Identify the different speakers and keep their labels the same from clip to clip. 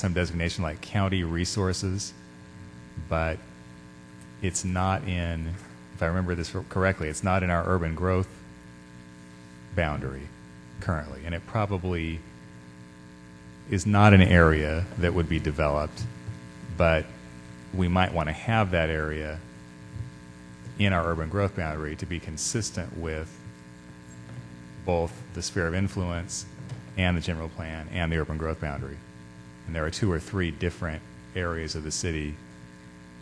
Speaker 1: some designation like county resources, but it's not in, if I remember this correctly, it's not in our urban growth boundary currently, and it probably is not an area that would be developed, but we might want to have that area in our urban growth boundary to be consistent with both the sphere of influence and the general plan and the urban growth boundary. And there are two or three different areas of the city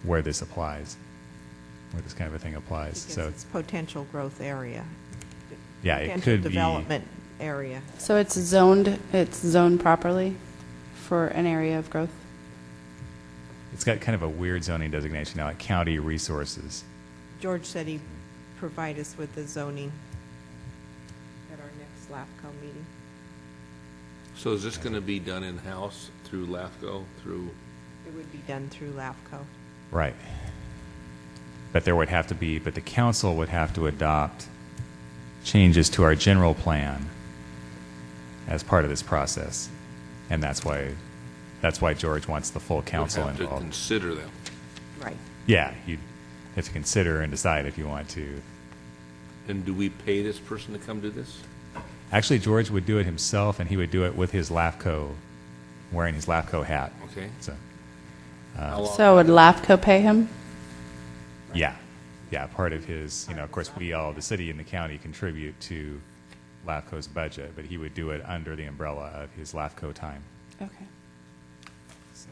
Speaker 1: where this applies, where this kind of a thing applies.
Speaker 2: Because
Speaker 1: So,
Speaker 2: it's potential growth area.
Speaker 1: yeah, it
Speaker 2: Potential
Speaker 1: could be.
Speaker 2: development area.
Speaker 3: So it's zoned, it's zoned properly for an area of growth?
Speaker 1: It's got kind of a weird zoning designation now, like county resources.
Speaker 2: George said he'd provide us with the zoning at our next LAFCO meeting.
Speaker 4: So is this going to be done in-house through LAFCO, through,
Speaker 2: It would be done through LAFCO.
Speaker 1: Right. But there would have to be, but the council would have to adopt changes to our general plan as part of this process. And that's why, that's why George wants the full
Speaker 4: would
Speaker 1: council
Speaker 4: have to
Speaker 1: involved.
Speaker 4: consider them?
Speaker 2: Right.
Speaker 1: Yeah, you have to consider and decide if you want to.
Speaker 4: And do we pay this person to come do this?
Speaker 1: Actually, George would do it himself, and he would do it with his LAFCO, wearing his LAFCO hat.
Speaker 4: Okay.
Speaker 1: So,
Speaker 4: How long-
Speaker 3: So would LAFCO pay him?
Speaker 1: yeah, yeah, part of his, you know, of course, we all, the city and the county contribute to LAFCO's budget, but he would do it under the umbrella of his LAFCO time.
Speaker 3: Okay.
Speaker 1: So,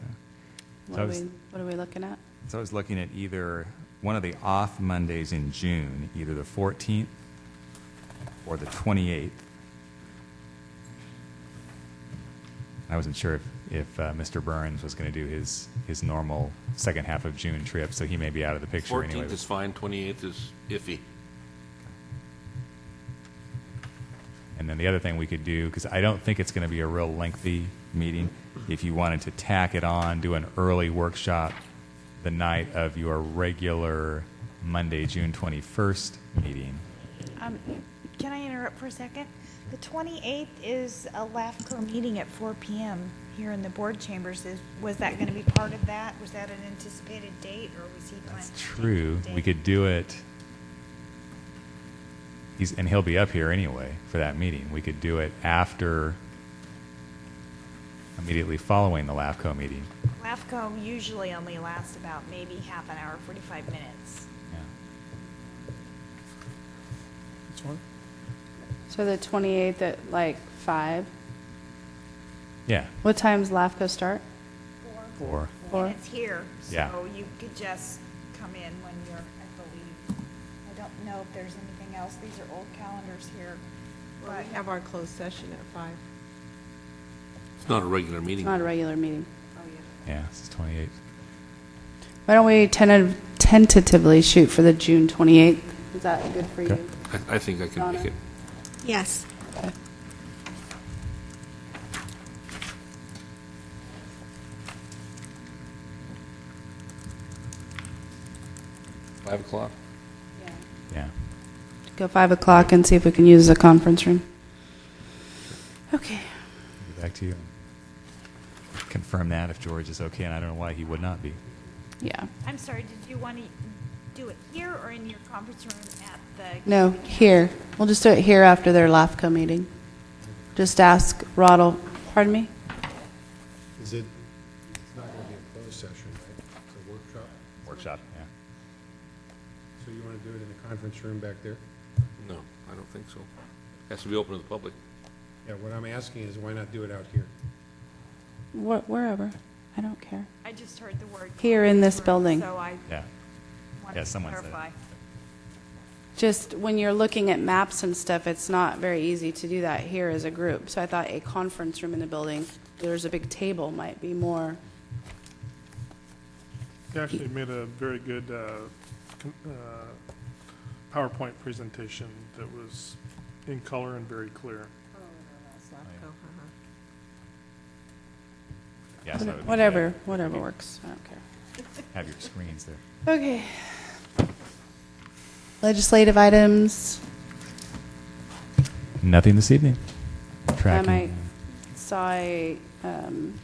Speaker 3: What
Speaker 1: So I
Speaker 3: are
Speaker 1: was-
Speaker 3: we, what are we looking at?
Speaker 1: so I was looking at either one of the off Mondays in June, either the 14th or the 28th. I wasn't sure if, if uh, Mr. Burns was going to do his, his normal second half of June trip, so he may be out of the picture anyway.
Speaker 4: 14th is fine, 28th is iffy.
Speaker 1: And then the other thing we could do, because I don't think it's going to be a real lengthy meeting, if you wanted to tack it on, do an early workshop the night of your regular Monday, June 21st meeting.
Speaker 5: Um, Can I interrupt for a second? The 28th is a LAFCO meeting at 4 PM here in the board chambers. Is- Was that going to be part of that? Was that an anticipated date, or was he planning?
Speaker 1: That's
Speaker 5: to take
Speaker 1: true.
Speaker 5: that
Speaker 1: We
Speaker 5: date?
Speaker 1: could do it. He's, and he'll be up here anyway for that meeting. We could do it after, immediately following the LAFCO meeting.
Speaker 5: LAFCO usually only lasts about maybe half an hour, 45 minutes.
Speaker 3: So the 28th at like 5?
Speaker 1: Yeah.
Speaker 3: What time's LAFCO start?
Speaker 1: Or,
Speaker 3: Four.
Speaker 5: And it's here,
Speaker 1: Yeah.
Speaker 5: so you could just come in when you're, I believe. I don't know if there's anything else. These are old calendars here.
Speaker 2: Well, we
Speaker 5: but-
Speaker 2: have our closed session at five.
Speaker 4: It's not a regular
Speaker 3: It's
Speaker 4: meeting.
Speaker 3: not a regular meeting.
Speaker 2: Oh, yeah.
Speaker 1: yeah, this is 28th.
Speaker 3: Why don't we tenta- tentatively shoot for the June 28th? Is that good for
Speaker 1: Okay.
Speaker 3: you?
Speaker 4: I, I think I can make
Speaker 3: Donna?
Speaker 4: it.
Speaker 6: Yes.
Speaker 4: Five o'clock?
Speaker 1: Yeah.
Speaker 3: Go 5 o'clock and see if we can use the conference room. Okay.
Speaker 1: Get back to you. Confirm that if George is okay, and I don't know why he would not be.
Speaker 3: Yeah.
Speaker 5: I'm sorry, did you want to do it here or in your conference room at the?
Speaker 3: No, here. We'll just do it here after their LAFCO meeting. Just ask Roddle, pardon me?
Speaker 7: Is it, it's not going to be a closed session, right? It's a workshop?
Speaker 1: Workshop. Yeah.
Speaker 7: So you want to do it in the conference room back there?
Speaker 4: No, I don't think so. Has to be open to the public.
Speaker 7: Yeah, what I'm asking is why not do it out here?
Speaker 3: Wh- Wherever. I don't care.
Speaker 5: I just heard the word.
Speaker 3: Here in this building.
Speaker 5: conference room, So I
Speaker 1: Yeah. Yeah,
Speaker 5: wanted to
Speaker 1: someone said it.
Speaker 5: clarify.
Speaker 3: Just when you're looking at maps and stuff, it's not very easy to do that here as a group. So I thought a conference room in the building, there's a big table, might be more.
Speaker 8: They actually made a very good uh, con- uh, PowerPoint presentation that was in color and very clear.
Speaker 2: Oh, no, that's LAFCO, uh-huh.
Speaker 1: yeah so it would be
Speaker 3: Whatever,
Speaker 1: good.
Speaker 3: whatever works. I don't care.
Speaker 1: Have your screens there.
Speaker 3: Okay. Legislative items.
Speaker 1: Nothing this evening.
Speaker 3: Um,
Speaker 1: Tracking.
Speaker 3: I saw a um,